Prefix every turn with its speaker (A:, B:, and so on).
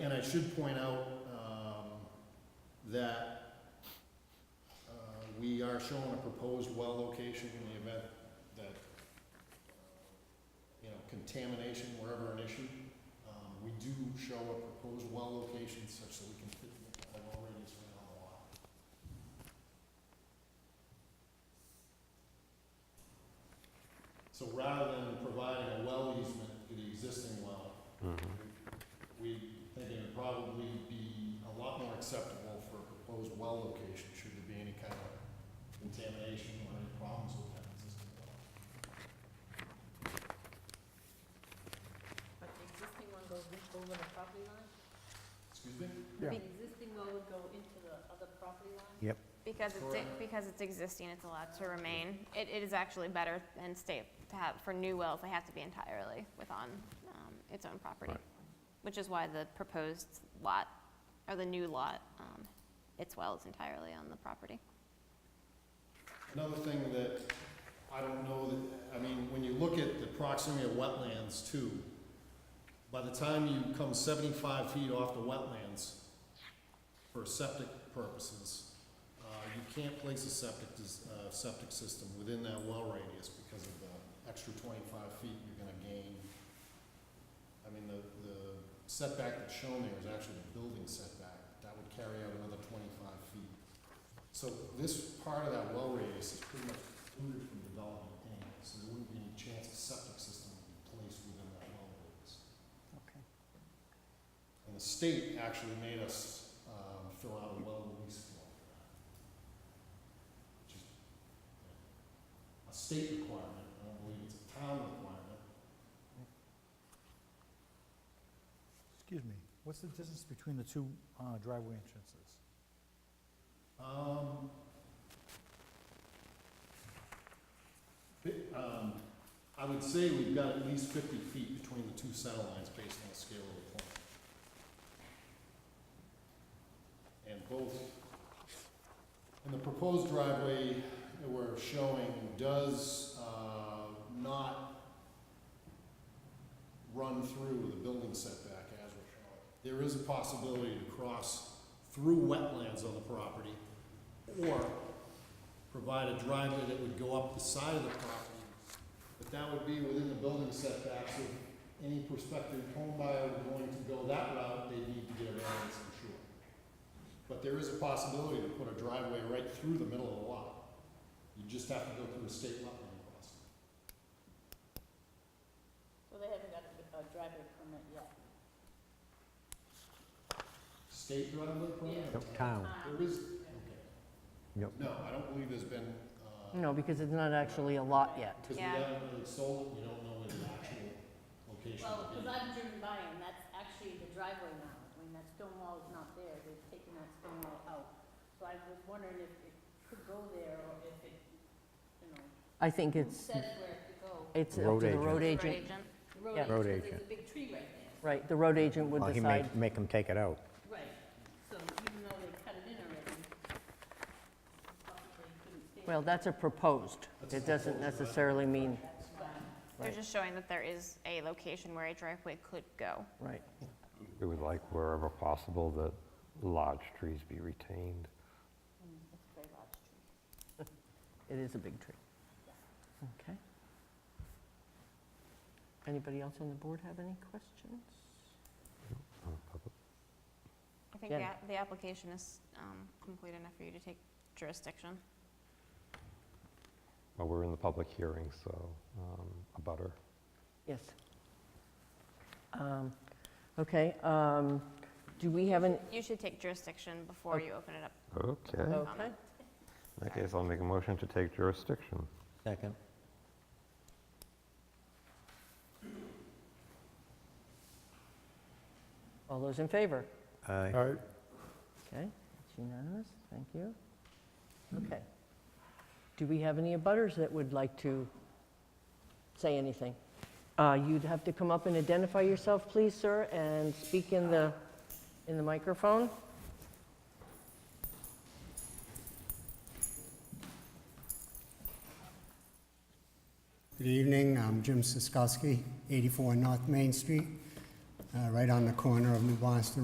A: I should point out, um, that, uh, we are showing a proposed well location in the event that, you know, contamination wherever an issue. Um, we do show a proposed well location such that we can fit the well radius right on the lot. So rather than providing a well easement to the existing well, we think it would probably be a lot more acceptable for a proposed well location, should there be any kind of contamination or any problems with that existing well.
B: But the existing one goes in- over the property line?
A: Excuse me?
C: Yeah.
B: The existing one would go into the other property line?
C: Yep.
D: Because it's,
A: Correct.
D: because it's existing, it's allowed to remain. It, it is actually better than state to have, for new wells, they have to be entirely within um, its own property.
E: Right.
D: Which is why the proposed lot, or the new lot, um, its well is entirely on the property.
A: Another thing that I don't know that, I mean, when you look at the proximity of wetlands too, by the time you come seventy-five feet off the wetlands for septic purposes, uh, you can't place a septic, dis- uh, septic system within that well radius because of the extra twenty-five feet you're gonna gain. I mean, the, the setback that's shown there is actually the building setback. That would carry out another twenty-five feet. So this part of that well radius is pretty much excluded from development anyway, so there wouldn't be any chance a septic system would be placed within that well radius.
C: Okay.
A: And the state actually made us, um, fill out a well release form for that. Which is yeah, a state requirement, I don't believe it's a town requirement.
C: Excuse me, what's the distance between the two uh, driveway entrances?
A: Um, bi- um, I would say we've got at least fifty feet between the two center lines based on the scale of the plan. And both, and the proposed driveway that we're showing does, uh, not run through the building setback as we're showing. There is a possibility to cross through wetlands on the property, or provide a driveway that would go up the side of the property. But that would be within the building setbacks of any prospective home buyer going to go that route, they need to get a variance, I'm sure. But there is a possibility to put a driveway right through the middle of the lot. You just have to go through a state wetland process.
B: So they haven't got a a driveway permit yet?
A: State driveway permit?
B: Yep,
F: town.
B: Um,
A: There is, okay.
F: Yep.
A: No, I don't believe there's been, uh.
G: No, because it's not actually a lot yet.
A: Because we
D: Yeah.
A: haven't really sold it, we don't know where the actual location
B: Well,
A: will
B: because
A: be.
B: I've driven by and that's actually the driveway now. I mean, that stone wall is not there. They've taken that stone wall out. So I was wondering if it could go there or if it, you know,
G: I think
B: who
G: it's,
B: says where it could go?
G: it's up
F: Road
G: to the
F: agent.
G: road
D: Road
G: agent.
D: agent.
B: The Road
G: Yeah.
B: agent, 'cause
F: Road
B: there's
F: agent.
B: a big tree right there.
G: Right, the road agent would
F: Well, he
G: decide.
F: may make him take it out.
B: Right, so even though they cut it in already, possibly couldn't stay.
G: Well, that's a proposed. It doesn't necessarily mean,
D: They're
G: Right.
D: just showing that there is a location where a driveway could go.
G: right.
E: We would like wherever possible that large trees be retained.
B: It's Mm, a very large tree.
G: It is a big tree. Okay. Anybody else on the board have any questions?
D: I think
G: Yeah.
D: the, app- the application is um, complete enough for you to take jurisdiction.
E: Well, we're in the public hearing, so um, a butter.
G: Yes. Um, Okay, um, do we have an,
D: You should take jurisdiction before
G: Okay.
D: you open it up.
E: Okay.
G: Oh. okay.
E: In that case, I'll make a motion to take jurisdiction.
F: Second.
G: All those in favor?
F: Aye.
C: All right.
G: Okay, it's unanimous, thank you. Okay. Do we have any abutters that would like to say anything? Uh, You'd have to come up and identify yourself, please, sir, and speak in the, in the microphone.
H: Good evening, I'm Jim Siskowski, 84 North Main Street, uh, right on the corner of New Boston